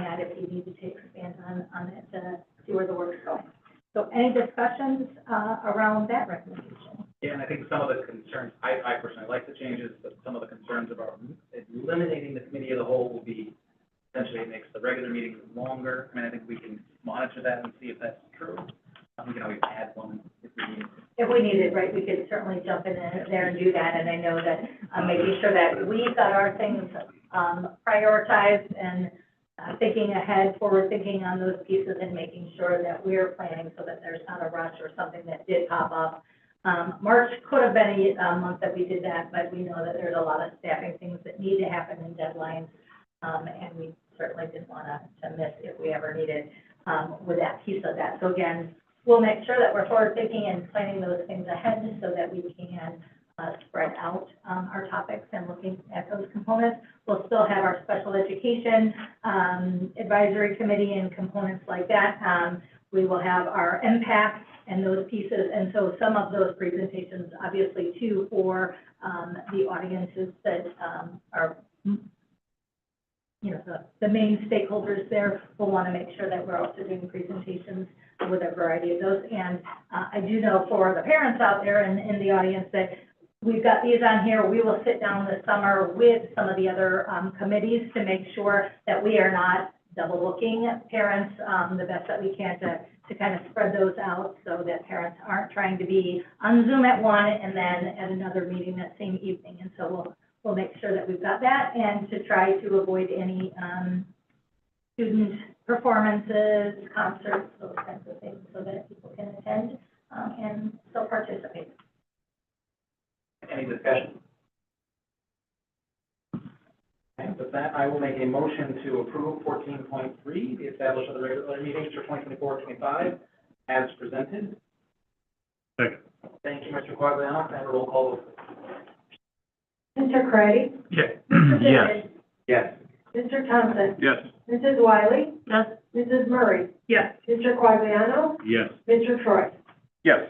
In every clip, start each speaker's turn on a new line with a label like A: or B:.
A: add if you needed to expand on, on it to see where the work's going. So any discussions, uh, around that recommendation?
B: Yeah, and I think some of the concerns, I, I personally like the changes, but some of the concerns about eliminating the committee of the whole will be, essentially it makes the regular meetings longer. I mean, I think we can monitor that and see if that's true. Um, We can always add one if we need.
A: If we needed, right, we could certainly jump in there and do that, and I know that, uh, making sure that we've got our things, um, prioritized and uh, thinking ahead, forward thinking on those pieces and making sure that we're planning so that there's not a rush or something that did pop up. Um, March could have been a, a month that we did that, but we know that there's a lot of staffing things that need to happen and deadlines. Um, and we certainly didn't want to, to miss if we ever needed, um, with that piece of that. So again, we'll make sure that we're forward thinking and planning those things ahead so that we can, uh, spread out, um, our topics and looking at those components. We'll still have our special education, um, advisory committee and components like that. Um, we will have our impact and those pieces, and so some of those presentations, obviously, too, for, um, the audiences that, um, are, you know, the, the main stakeholders there will want to make sure that we're also doing presentations with a variety of those. And uh, I do know for the parents out there and in the audience that we've got these on here. We will sit down this summer with some of the other um, committees to make sure that we are not double looking at parents um, the best that we can to, to kind of spread those out so that parents aren't trying to be on Zoom at one and then at another meeting that same evening. And so we'll, we'll make sure that we've got that and to try to avoid any um, student performances, concerts, those kinds of things, so that people can attend, um, and still participate.
B: Any discussion? And with that, I will make a motion to approve fourteen point three, the establishment of the regular meetings for 2024-25 as presented.
C: Second.
B: Thank you, Mr. Quagliano, and a roll call. vote.
A: Mr. Craddy?
C: Yes.
B: Yes.
A: Mr. Thompson?
C: Yes.
A: Mrs. Wiley?
D: Yes.
A: Mrs. Murray?
D: Yes.
A: Mr. Quagliano?
C: Yes.
A: Mr. Troy?
C: Yes.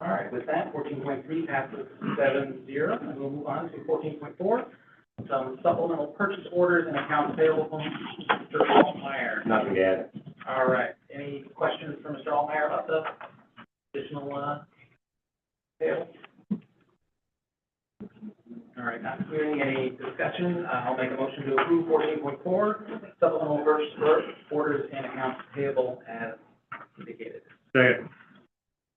B: All right, with that, fourteen point three passes seven zero, and we'll move on to fourteen point four, some supplemental purchase orders and accounts payable from Mr. Altmeyer.
C: Nothing to add.
B: All right, any questions for Mr. Altmeyer about the additional, uh, payable? All right, not hearing any discussion, uh, I'll make a motion to approve fourteen point four, supplemental purchase or- orders and accounts payable as indicated.
C: Second.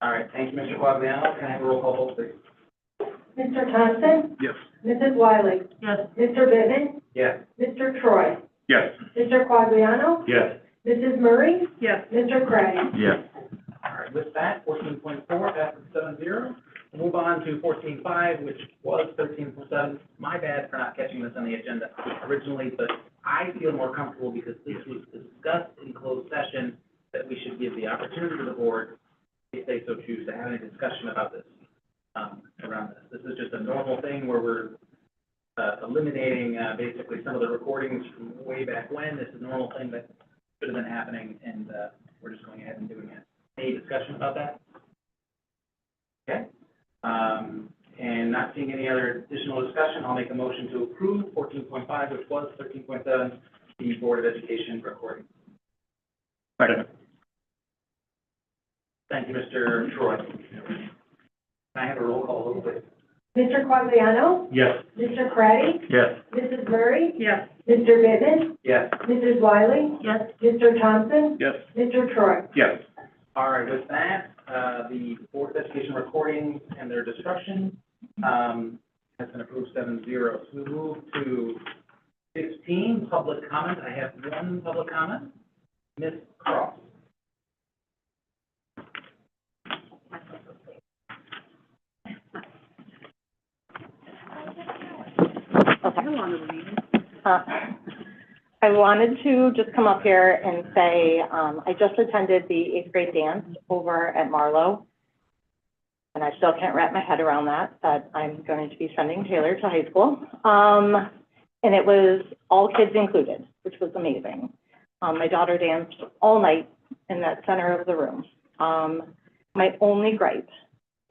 B: All right, thank you, Mr. Quagliano, can I have a roll call vote, please?
A: Mr. Thompson?
C: Yes.
A: Mrs. Wiley?
D: Yes.
A: Mr. Bivin?
B: Yes.
A: Mr. Troy?
C: Yes.
A: Mr. Quagliano?
C: Yes.
A: Mrs. Murray?
D: Yes.
A: Mr. Craddy?
C: Yes.
B: All right, with that, fourteen point four passes seven zero. Move on to fourteen five, which was thirteen point seven. My bad for not catching this on the agenda originally, but I feel more comfortable because this was discussed in closed session that we should give the opportunity to the board, if they so choose, to have any discussion about this, um, around this. This is just a normal thing where we're, uh, eliminating, uh, basically some of the recordings from way back when. This is a normal thing that should have been happening, and, uh, we're just going ahead and doing it. Any discussion about that? Okay. Um, and not seeing any other additional discussion, I'll make a motion to approve fourteen point five, which was thirteen point seven, the Board of Education recording.
C: Second.
B: Thank you, Mr. Troy. Can I have a roll call, vote, please?
A: Mr. Quagliano?
C: Yes.
A: Mr. Craddy?
C: Yes.
A: Mrs. Murray?
D: Yes.
A: Mr. Bivin?
B: Yes.
A: Mrs. Wiley?
D: Yes.
A: Mr. Thompson?
C: Yes.
A: Mr. Troy?
C: Yes.
B: All right, with that, uh, the Board of Education recordings and their destruction, um, has been approved seven zero. So we move to sixteen, public comment. I have one public comment. Ms. Cross.
E: Uh, I wanted to just come up here and say, um, I just attended the eighth grade dance over at Marlowe. And I still can't wrap my head around that, but I'm going to be sending Taylor to high school. Um, and it was all kids included, which was amazing. Um, my daughter danced all night in that center of the room. Um, my only gripe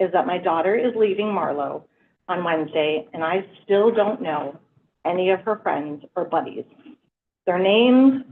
E: is that my daughter is leaving Marlowe on Wednesday and I still don't know any of her friends or buddies. Their names,